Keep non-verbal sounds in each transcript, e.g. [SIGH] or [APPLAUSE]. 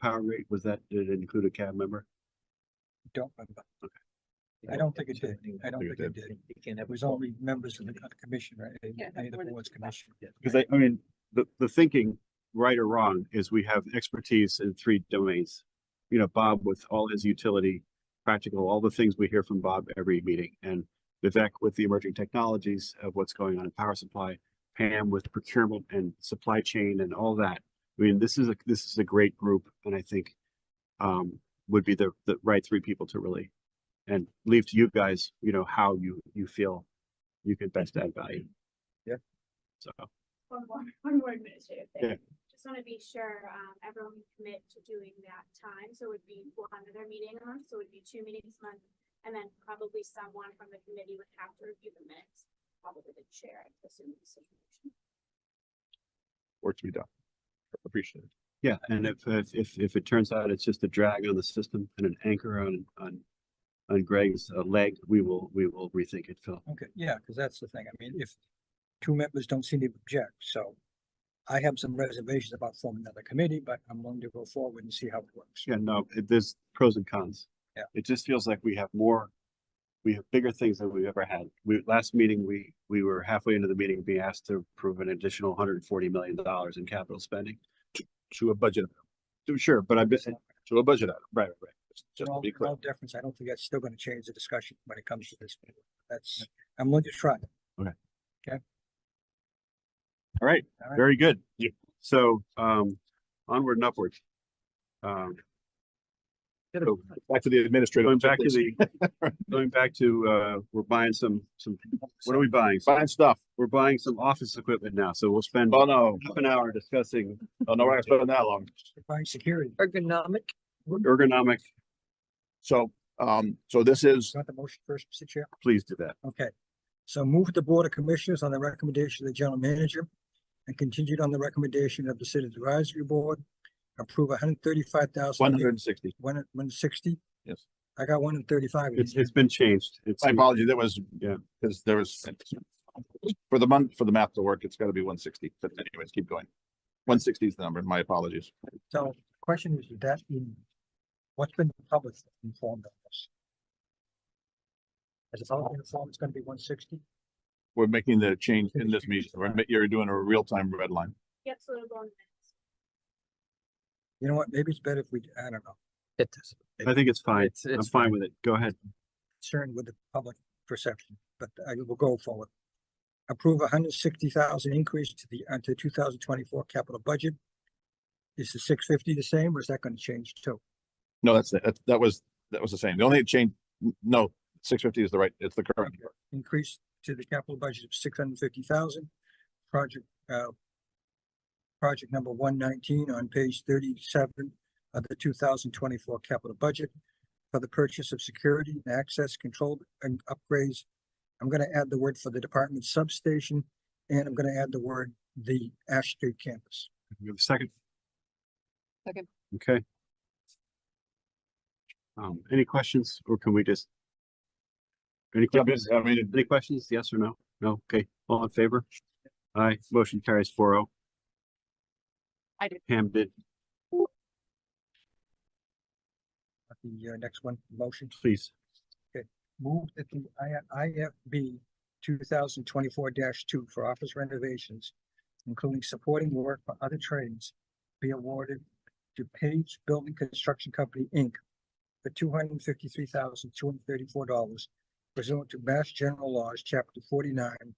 power rate? Was that, did it include a cab member? Don't remember. Yeah, I don't think it did. certainly I don't think think it it did. did. You can't have It was only members of the co- commission, right? Any Yeah, any of more the than boards two members. commission. Because I, I mean, the, the thinking, right or wrong, is we have expertise in three domains. You know, Bob with all his utility, practical, all the things we hear from Bob every meeting, and Vivek with the emerging technologies of what's going on in power supply, Pam with procurement and supply chain and all that. I mean, this is a, this is a great group, and I think um, would be the, the right three people to really, and leave to you guys, you know, how you, you feel you can best add value. Yeah. So. One more, [LAUGHS] one more administrative Yeah. thing. Just wanna be sure, um, everyone can commit to doing that time, so it'd be one other meeting a month, so it'd be two meetings a month. And then probably someone from the committee would have to review the minutes, probably the chair, I assume. the situation. work to be done. Appreciate it. Yeah, and if, if, if, if it turns out it's just a drag on the system and an anchor on, on, on Greg's uh, leg, we will, we will rethink it, Phil. Okay, yeah, because that's the thing. I mean, if two members don't seem to object, so I have some reservations about forming another committee, but I'm willing to go forward and see how it works. Yeah, no, it- there's pros and cons. Yeah. It just feels like we have more, we have bigger things than we've ever had. We, last meeting, we, we were halfway into the meeting, being asked to approve an additional hundred and forty million dollars in capital spending. To a budget, Sure, but I'm just, right, to a budget item, right, right. just In to all, be in clear. all deference, I don't think that's still gonna change the discussion when it comes to this. That's, I'm willing to try. All right, All right. very good. Yeah. So, um, onward and upward. Um, so- Back to the administrative. Going back to checklist. the, going back to, uh, we're buying some, some, what are we buying? Fine stuff. We're buying some office equipment now, so we'll spend Oh, no. half an hour discussing Oh, no, we're not spending that long. Fine security, Ergonomic. ergonomic, So, um, so this is is that the motion first, Mr. Chair? please do that. Okay, so move the Board of Commissioners on the recommendation of the General Manager and continued on the recommendation of the City Advisory Board, approve one hundred thirty-five thousand. one hundred and sixty. One, one sixty? Yes. I got one and thirty-five. It's, it's been changed. It's, My apology, that was, Yeah. because there was, for the month, for the math to work, it's gotta be one sixty, but anyways, keep going. One sixty is the number, my apologies. So question is, is that in, what's been published informed of this? Has it all been informed it's gonna be one sixty? We're making the change in this meeting, We're ma- you're doing a real-time red line. Yep, so it'll go on the minutes. You know what, maybe it's better if we, I don't know, It does. I think it's fine. It's- I'm it's fine with it. Go ahead. concerned with the public perception, but I will go forward. Approve a hundred sixty thousand increase to the, uh, to two thousand twenty-four capital budget. Is the six fifty the same, or is that gonna change too? No, that's, that, that was, that was the same. The only change, no, six fifty is the right, it's the current. Okay. Increase to the capital budget of six hundred fifty thousand, project, uh. Project number one nineteen on page thirty-seven of the two thousand twenty-four capital budget. For the purchase of security and access control and upgrades. I'm gonna add the word for the department substation, and I'm gonna add the word the Ash Street campus. We have a second? Second. Okay. Um, any questions or can we just? Any Yeah, questions? I mean, Any questions? Yes or no? No? Okay. All in favor? Aye. Motion carries four oh. I did. Pam did. The uh, next one, motion. Please. Move that the I, IFB two thousand twenty-four two for office renovations, including supporting work for other trades, be awarded to Page Building Construction Company, Inc. for two hundred and fifty-three thousand, two hundred and thirty-four dollars pursuant to Mass General Laws, Chapter forty-nine,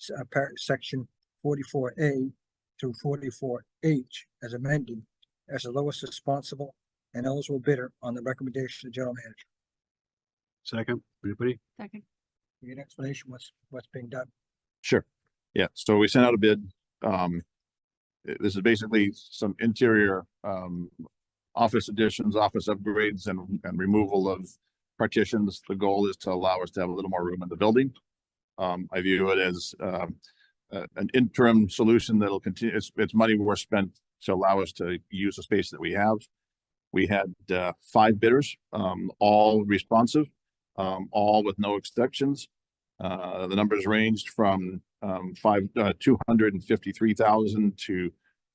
s- uh, par- Section forty-four A through forty-four H as amended, as the lowest responsible and eligible bidder on the recommendation of the general manager. Second. Anybody? Second. Give you an explanation what's, what's being done. Sure. Yeah, so we sent out a bid. Um, i- this is basically some interior, um, office additions, office upgrades and, and removal of partitions. The goal is to allow us to have a little more room in the building. Um, I view it as, um, uh, an interim solution that'll continue, it's, it's money we're spent to allow us to use the space that we have. We had, uh, five bidders, um, all responsive, um, all with no exceptions. Uh, the numbers ranged from, um, five, uh, two hundred and fifty-three thousand to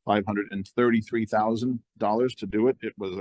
five hundred and thirty-three thousand dollars to do it. It was